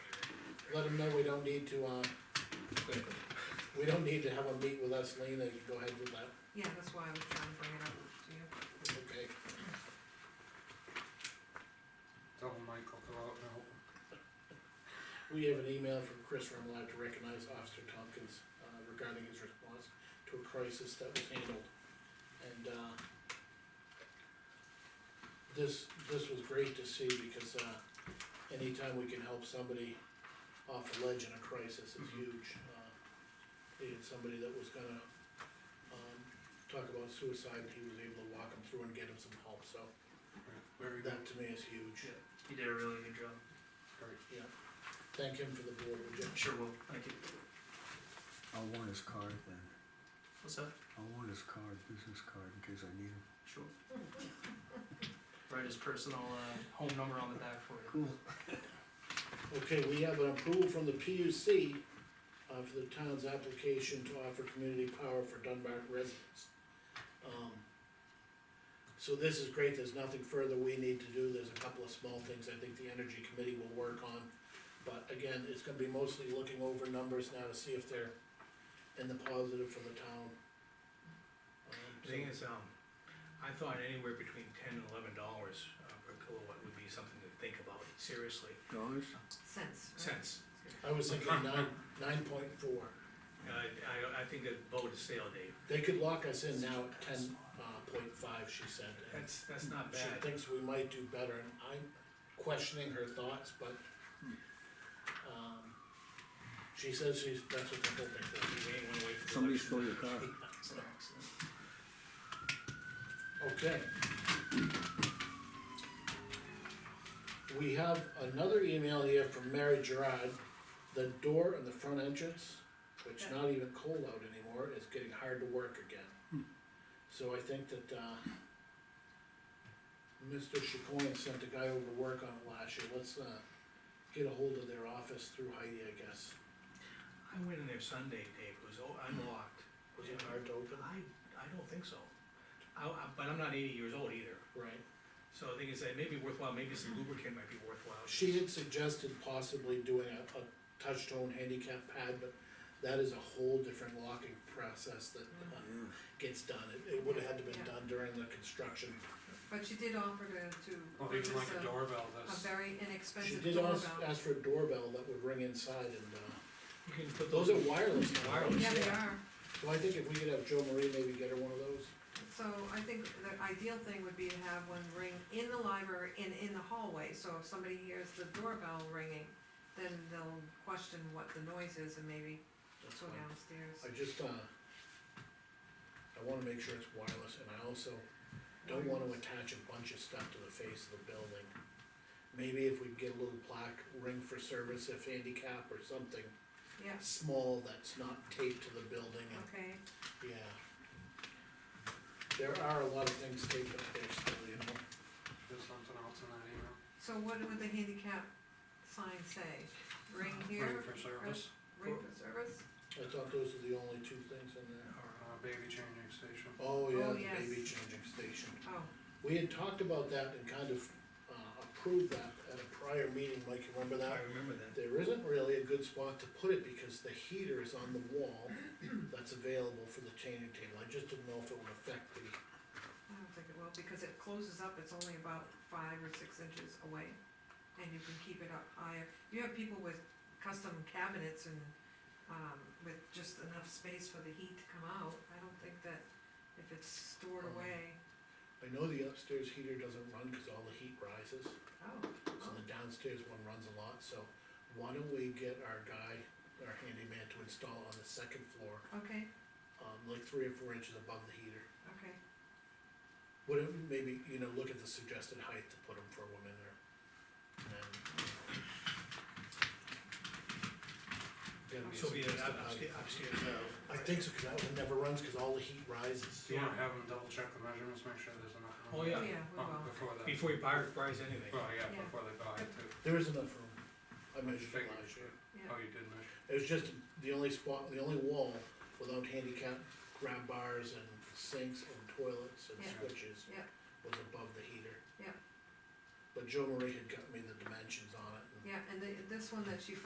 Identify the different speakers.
Speaker 1: let them know we don't need to, uh, we don't need to have a meet with us, Lean, and go ahead with that,
Speaker 2: Yeah, that's why I was trying to bring it up to you.
Speaker 1: okay?
Speaker 3: Tell Michael to out now.
Speaker 1: We have an email from Chris Remlott to recognize Officer Tompkins uh, regarding his response to a crisis that was handled. And, uh, this, this was great to see because, uh, anytime we can help somebody off a ledge in a crisis is
Speaker 3: Mm-hmm.
Speaker 1: huge. Uh, He had somebody that was gonna, um, talk about suicide, he was able to walk him through and get him some help, so
Speaker 3: Very good,
Speaker 1: that to me is huge.
Speaker 4: You did a really good job.
Speaker 3: very,
Speaker 1: Thank him for the board, would you?
Speaker 4: Sure will. Thank you.
Speaker 5: I'll want his card then.
Speaker 4: What's that?
Speaker 5: I'll want his card, business card, in case I need him.
Speaker 4: Sure. Write his personal, uh, home number on the back for you.
Speaker 5: Cool.
Speaker 1: Okay, we have an approval from the PUC uh, for the town's application to offer community power for Dunbar residents. Um, So this is great, there's nothing further we need to do, there's a couple of small things I think the energy committee will work on. But again, it's gonna be mostly looking over numbers now to see if they're in the positive for the town. Um, so-
Speaker 6: The Thing is, um, I thought anywhere between ten and eleven dollars uh, per kilowatt would be something to think about, seriously,
Speaker 5: Dollars?
Speaker 2: Sense. right?
Speaker 6: cents.
Speaker 1: I was thinking nine, nine point four,
Speaker 6: Uh, I, I think that boat is sail, Dave,
Speaker 1: they could lock us in now at ten, uh, point five, she said. and-
Speaker 6: that's, that's not
Speaker 1: She
Speaker 6: bad.
Speaker 1: thinks we might do better, and I'm questioning her thoughts, but, um, she says she's, that's what the whole
Speaker 6: You
Speaker 1: thing
Speaker 6: ain't wanna wait for the
Speaker 5: Somebody
Speaker 6: election.
Speaker 5: stole your car.
Speaker 4: It's an accident.
Speaker 1: is. Okay. We have another email here from Mary Gerard, the door in the front entrance, which not even cold out anymore, is getting hard to work
Speaker 5: Hmm.
Speaker 1: again. So I think that, uh, Mr. Chacoine sent a guy over to work on it last year, let's, uh, get ahold of their office through Heidi, I guess.
Speaker 6: I went in there Sunday, Dave, it was oh, o- unlocked.
Speaker 1: Was it hard to open?
Speaker 6: I, I don't think so. I, I, but I'm not eighty years old either,
Speaker 1: Right.
Speaker 6: so the thing is, it may be worthwhile, maybe some lubricant might be worthwhile.
Speaker 1: She had suggested possibly doing a, a touch-tone handicap pad, but that is a whole different locking process that uh, gets done. It, it would've had to been
Speaker 2: Yeah.
Speaker 1: done during the construction.
Speaker 2: But she did offer to, to
Speaker 3: well,
Speaker 2: purchase
Speaker 3: even Oh, like a
Speaker 2: a,
Speaker 3: doorbell,
Speaker 2: a
Speaker 3: that's,
Speaker 2: very
Speaker 1: She
Speaker 2: inexpensive
Speaker 1: did ask,
Speaker 2: doorbell.
Speaker 1: ask for a doorbell that would ring inside and, uh,
Speaker 6: You can put
Speaker 1: those are wireless now.
Speaker 6: Wireless.
Speaker 2: Yeah, they
Speaker 6: yeah.
Speaker 2: are,
Speaker 1: So I think if we could have Joe Marie maybe get her one of those,
Speaker 2: so I think the ideal thing would be to have one ring in the library and in the hallway, so if somebody hears the doorbell ringing, then they'll question what the noise is and maybe
Speaker 1: that's
Speaker 2: go
Speaker 1: fine.
Speaker 2: downstairs.
Speaker 1: I just, uh, I wanna make sure it's wireless and I also don't wanna attach a bunch of stuff to the face of the building. Maybe if we get a little plaque, ring for service if handicap or something
Speaker 2: Yeah,
Speaker 1: small that's not taped to the building and,
Speaker 2: okay,
Speaker 1: yeah. There are a lot of things taped up there still, you know,
Speaker 3: there's something else in that email.
Speaker 2: so what would the handicap sign say? Ring
Speaker 3: Waiting
Speaker 2: here,
Speaker 3: for service,
Speaker 2: ring for service?
Speaker 1: I thought those are the only two things in there.
Speaker 3: or uh, baby changing station.
Speaker 1: Oh, yeah,
Speaker 2: Oh,
Speaker 1: the
Speaker 2: yes.
Speaker 1: baby changing station.
Speaker 2: Oh,
Speaker 1: We had talked about that and kind of, uh, approved that at a prior meeting, Mike, you remember that?
Speaker 6: I remember that.
Speaker 1: There isn't really a good spot to put it because the heater is on the wall that's available for the changing table, I just didn't know if it would affect the,
Speaker 2: I don't think it will, because it closes up, it's only about five or six inches away, and you can keep it up higher. You have people with custom cabinets and, um, with just enough space for the heat to come out, I don't think that if it's stored
Speaker 1: Mm.
Speaker 2: away,
Speaker 1: I know the upstairs heater doesn't run because all the heat rises,
Speaker 2: oh,
Speaker 1: so the downstairs one runs a lot, so why don't we get our guy, our handyman to install on the second floor,
Speaker 2: okay,
Speaker 1: um, like three or four inches above the heater?
Speaker 2: okay,
Speaker 1: Would it maybe, you know, look at the suggested height to put them for women or men? Gotta be a
Speaker 6: So be it
Speaker 1: suggested
Speaker 6: up-
Speaker 1: height.
Speaker 6: upstairs, upstairs.
Speaker 1: I think so, cause that one never runs, cause all the heat rises.
Speaker 3: Do you wanna have them double check the measurements, make sure there's enough? room?
Speaker 6: Oh,
Speaker 2: yeah,
Speaker 6: Yeah.
Speaker 2: we
Speaker 3: Oh,
Speaker 2: will,
Speaker 3: Before that,
Speaker 6: Before you buy, buys anything.
Speaker 3: well, yeah,
Speaker 2: Yeah.
Speaker 3: before they buy it too.
Speaker 1: There is enough room. I measured it
Speaker 3: Figured.
Speaker 1: last year.
Speaker 2: yeah,
Speaker 3: Oh, you did measure,
Speaker 1: It was just the only spot, the only wall without handicap grab bars and sinks and toilets and
Speaker 2: Yeah.
Speaker 1: switches.
Speaker 2: Yeah.
Speaker 1: Was above the heater.
Speaker 2: Yeah.
Speaker 1: But Joe Marie had got me the dimensions on it and
Speaker 2: yeah, and the, this one that she